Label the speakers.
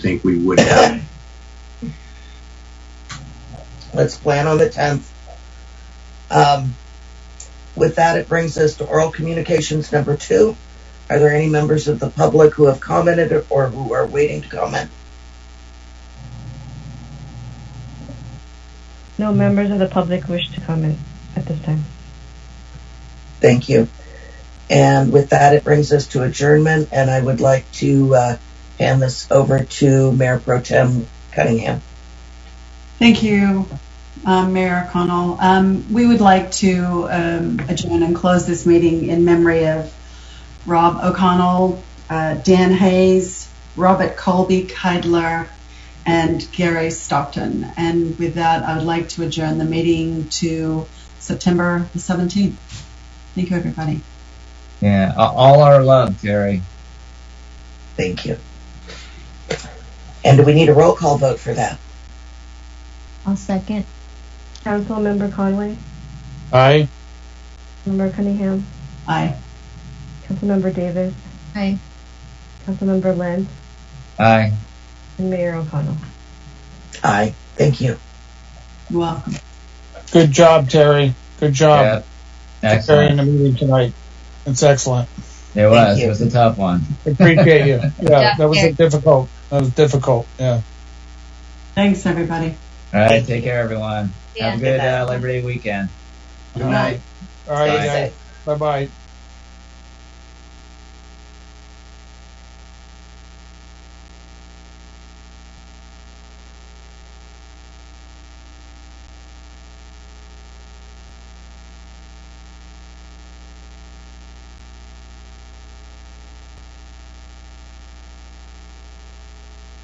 Speaker 1: think we would have.
Speaker 2: Let's plan on the tenth. Um, with that, it brings us to oral communications number two. Are there any members of the public who have commented or- or who are waiting to comment?
Speaker 3: No members of the public wish to comment at this time.
Speaker 2: Thank you. And with that, it brings us to adjournment, and I would like to uh, hand this over to Mayor Pro Tem Cunningham.
Speaker 4: Thank you, um, Mayor O'Connell. Um, We would like to um, adjourn and close this meeting in memory of Rob O'Connell, uh, Dan Hayes, Robert Colby Keidler, and Gary Stockton. And with that, I would like to adjourn the meeting to September the 17th. Thank you, everybody.
Speaker 5: Yeah, a- all our love, Gary.
Speaker 2: Thank you. And do we need a roll call vote for that?
Speaker 6: I'll second.
Speaker 3: Councilmember Conway,
Speaker 7: Aye.
Speaker 3: Member Cunningham,
Speaker 4: Aye.
Speaker 3: Councilmember Davis,
Speaker 6: Aye.
Speaker 3: Councilmember Lentz,
Speaker 5: Aye.
Speaker 3: and Mayor O'Connell.
Speaker 2: Aye. Thank you.
Speaker 4: You're welcome.
Speaker 7: Good job, Terry. Good job
Speaker 5: Yeah.
Speaker 7: carrying
Speaker 5: Excellent.
Speaker 7: the meeting tonight. It's excellent.
Speaker 5: It was.
Speaker 2: you.
Speaker 5: It was a tough one.
Speaker 7: Appreciate you. Yeah,
Speaker 6: Yeah,
Speaker 7: that was
Speaker 6: Terry.
Speaker 7: difficult. That was difficult. Yeah.
Speaker 4: Thanks, everybody.
Speaker 5: All right. Take care, everyone.
Speaker 6: Yeah.
Speaker 5: Have a good uh, Labor Day weekend.
Speaker 7: All right,
Speaker 2: Stay
Speaker 7: guys. Bye bye.